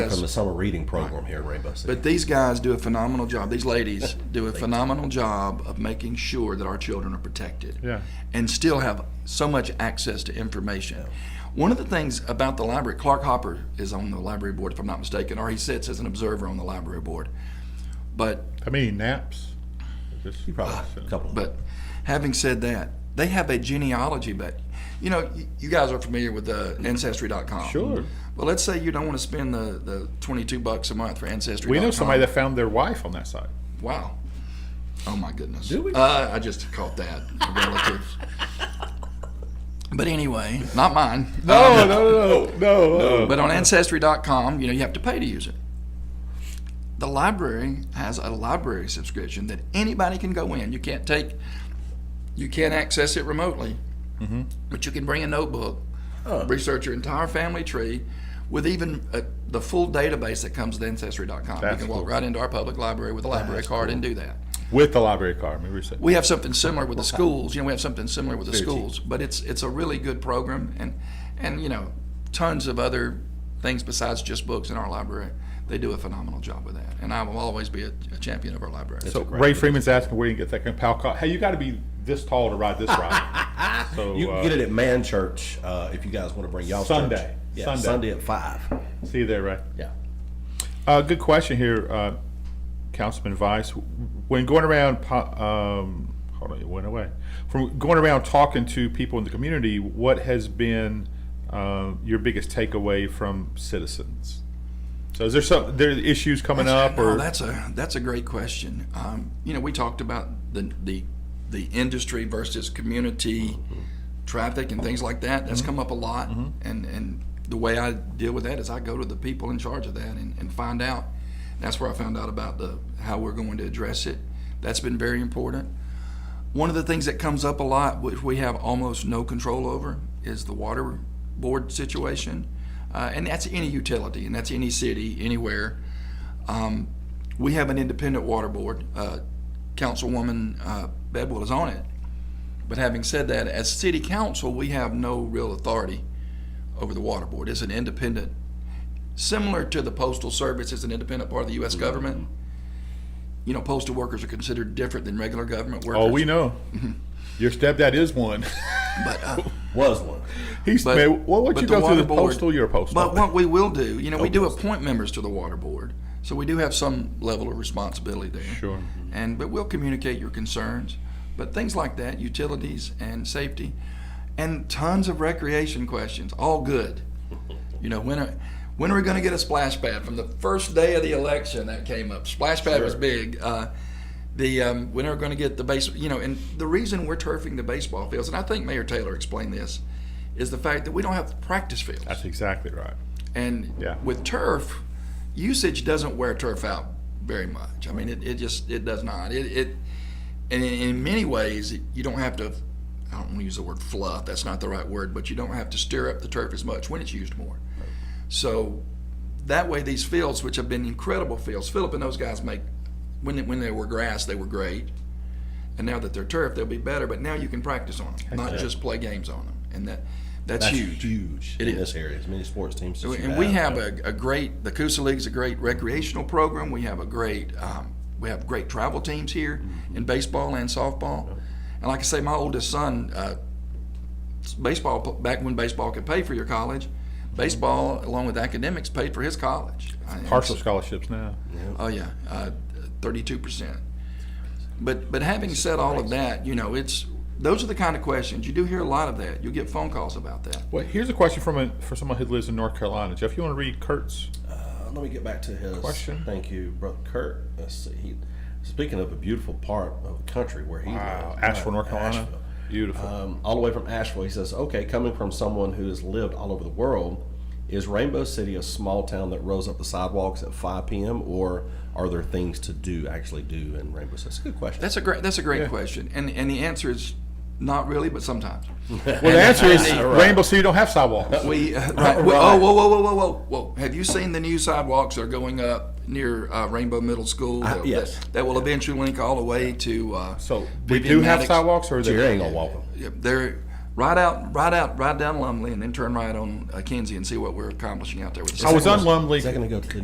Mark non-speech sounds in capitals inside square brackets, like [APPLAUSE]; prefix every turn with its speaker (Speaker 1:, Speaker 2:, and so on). Speaker 1: from the summer reading program here at Rainbow City.
Speaker 2: But these guys do a phenomenal job. These ladies [LAUGHS] do a phenomenal job of making sure that our children are protected.
Speaker 3: Yeah.
Speaker 2: And still have so much access to information. One of the things about the library, Clark Hopper is on the library board, if I'm not mistaken, or he sits as an observer on the library board. But
Speaker 3: How many naps? Just
Speaker 1: You probably a couple.
Speaker 2: But having said that, they have a genealogy, but you know, y- you guys are familiar with uh, Ancestry.com.
Speaker 3: Sure.
Speaker 2: Well, let's say you don't want to spend the, the 22 bucks a month for Ancestry.
Speaker 3: We know somebody that found their wife on that site.
Speaker 2: Wow. Oh my goodness.
Speaker 3: Do we?
Speaker 2: Uh, I just caught that. A relative.
Speaker 3: [LAUGHS]
Speaker 2: but anyway, not mine.
Speaker 3: Oh,
Speaker 2: Um,
Speaker 3: No, no, no, no,
Speaker 2: But on Ancestry.com, you know, you have to pay to use it. The library has a library subscription that anybody can go in. You can't take, you can't access it remotely,
Speaker 3: Mm-hmm.
Speaker 2: but you can bring a notebook,
Speaker 3: Oh.
Speaker 2: research your entire family tree, with even uh the full database that comes with Ancestry.com. you
Speaker 3: That's
Speaker 2: can walk
Speaker 3: cool.
Speaker 2: right into our public library with a library card and do that.
Speaker 3: With the library card, maybe we said.
Speaker 2: We have something similar with the schools. You know, we have something similar with the
Speaker 3: Very cheap.
Speaker 2: schools, but it's it's a really good program, and and you know, tons of other things besides just books in our library. They do a phenomenal job with that, and I will always be a, a champion of our library.
Speaker 3: So Ray Freeman's asking where you can get that. kind of Palcott, hey, you got to be this tall to ride this ride. So
Speaker 1: you
Speaker 3: uh,
Speaker 1: can get it at Man Church uh, if you guys want to bring y'all
Speaker 3: Sunday.
Speaker 1: Yeah,
Speaker 3: Sunday.
Speaker 1: Sunday. at five.
Speaker 3: See you there, Ray.
Speaker 1: Yeah.
Speaker 3: Uh, good question here, uh, Councilman Vice. When going around, po- um, hold on, it went away. From going around talking to people in the community, what has been uh, your biggest takeaway from citizens? So is there some there are issues coming up
Speaker 2: Oh,
Speaker 3: or
Speaker 2: that's a that's a great question. Um, you know, we talked about the the the industry versus community
Speaker 3: Mm-hmm.
Speaker 2: traffic and things like that. That's come up a lot, and and the way I deal with that is I go to the people in charge of that and, and find out. That's where I found out about the how we're going to address it. That's been very important. One of the things that comes up a lot, which we have almost no control over, is the water board situation, uh, and that's any utility, and that's any city, anywhere. Um, we have an independent water board. Uh, Councilwoman uh, Bedwell is on it. But having said that, as city council, we have no real authority over the water board. It's an independent, similar to the postal service, it's an independent part of the
Speaker 3: Mm-hmm.
Speaker 2: U.S. government. You know, postal workers are considered different than regular government workers.
Speaker 3: oh we know
Speaker 2: Mm-hmm.
Speaker 3: your stepdad is one. [LAUGHS]
Speaker 2: But, uh,
Speaker 1: Was one.
Speaker 3: He's
Speaker 2: But-
Speaker 3: man, what would
Speaker 2: but
Speaker 3: you
Speaker 2: the
Speaker 3: go through
Speaker 2: water
Speaker 3: the
Speaker 2: board-
Speaker 3: postal? You're a postal. Oh,
Speaker 2: But what we will do, you know, we do appoint members to the water board, so we do have some level of responsibility there.
Speaker 3: Sure.
Speaker 2: Mm-hmm. And, but we'll communicate your concerns, but things like that, utilities and safety, and tons of recreation questions, all good. You know, when are, when are we gonna get a splash pad? From the first day of the election, that came up. Splash pad was
Speaker 3: Sure.
Speaker 2: big. Uh, the, um, when are we gonna get the base, you know, and the reason we're turfing the baseball fields, and I think Mayor Taylor explained this, is the fact that we don't have practice fields.
Speaker 3: That's exactly right.
Speaker 2: And
Speaker 3: Yeah.
Speaker 2: with turf, usage doesn't wear turf out very much. I mean, it, it just it does not. It, it and in, in many ways, it, you don't have to. I don't want to use the word fluff. That's not the right word, but you don't have to stir up the turf as much when it's used more. So that way, these fields, which have been incredible fields, Philip and those guys make when they, when they were grass, they were great, and now that they're turf, they'll be better. But now you can practice on them, not just play games on them, and that that's,
Speaker 1: That's
Speaker 2: huge.
Speaker 1: huge.
Speaker 2: It
Speaker 1: in
Speaker 2: is.
Speaker 1: this area. As many sports teams as you
Speaker 2: And we have a, a great, the Coosa League's a great recreational program. We have a great, um, we have great travel teams here in baseball and softball. And like I say, my oldest son, uh, baseball, back when baseball could pay for your college, baseball along with academics paid for his college. I- it's-
Speaker 3: Partial scholarships now.
Speaker 2: Oh yeah, thirty-two percent. But but having said all of that, you know, it's those are the kind of questions you do hear a lot of that. You'll get phone calls about that.
Speaker 3: Well, here's a question from a, for someone who lives in North Carolina. Jeff, you want to read Kurt's?
Speaker 1: Uh, let me get back to his
Speaker 3: Question?
Speaker 1: Thank you, brother Kurt. Let's see. He, speaking of a beautiful part of the country where he
Speaker 3: Wow,
Speaker 1: lives,
Speaker 3: Uh, Asheville, North Carolina. Uh,
Speaker 1: Asheville.
Speaker 3: Beautiful.
Speaker 1: um, all the way from Asheville. He says, okay, coming from someone who has lived all over the world, is Rainbow City a small town that rolls up the sidewalks at 5 p.m., or are there things to do, actually do in Rainbow City? It's a good question.
Speaker 2: That's a great. That's a great question, and and the answer is not really, but
Speaker 3: [LAUGHS]
Speaker 2: sometimes.
Speaker 3: well, the answer is
Speaker 1: Right.
Speaker 3: Rainbow City don't have sidewalks.
Speaker 2: We, uh, right, we- oh whoa whoa whoa whoa whoa whoa! Have you seen the new sidewalks that are going up near uh, Rainbow Middle School? that,
Speaker 1: yes.
Speaker 2: That, that will eventually link all the way to. Uh,
Speaker 3: So we
Speaker 2: Vivian
Speaker 3: do have
Speaker 2: Maddox.
Speaker 3: sidewalks, or
Speaker 1: So you
Speaker 3: they're
Speaker 1: ain't gonna walk 'em.
Speaker 2: Yep, There, Ride out, ride out, ride down Lumley, and then turn right on uh, Kinsey and see what we're accomplishing out there with the
Speaker 3: I was
Speaker 2: sidewalks.
Speaker 3: on Lumley.
Speaker 1: Is that going to go to the